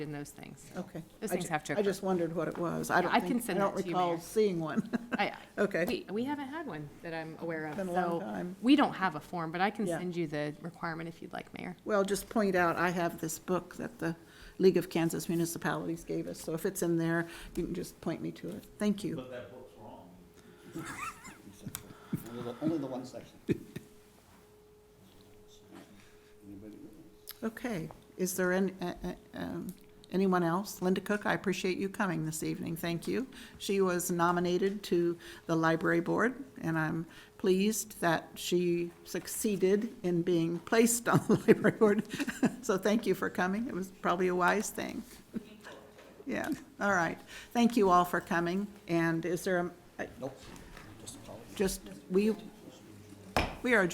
in those things. Okay. Those I things ju- have to I just wondered what it was. I don't I can think, I send don't that to you, Mayor. recall seeing one. I- Okay, We, we haven't had one that I'm aware of, been a long so time. we don't have a form, but I can Yeah. send you the requirement if you'd like, Mayor. Well, just point out, I have this book that the League of Kansas Municipalities gave us, so if it's in there, you can just point me to it. Thank you. But that book's wrong. Only the- Only the one section. Anybody else? Okay, is there any, uh, uh, um, anyone else? Linda Cook, I appreciate you coming this evening, thank you. She was nominated to the library board, and I'm pleased that she succeeded in being placed on the library board. So thank you for coming, it was probably a wise thing. Yeah, all right, thank you all for coming, and is there, a- Nope, just a call. just, we, we are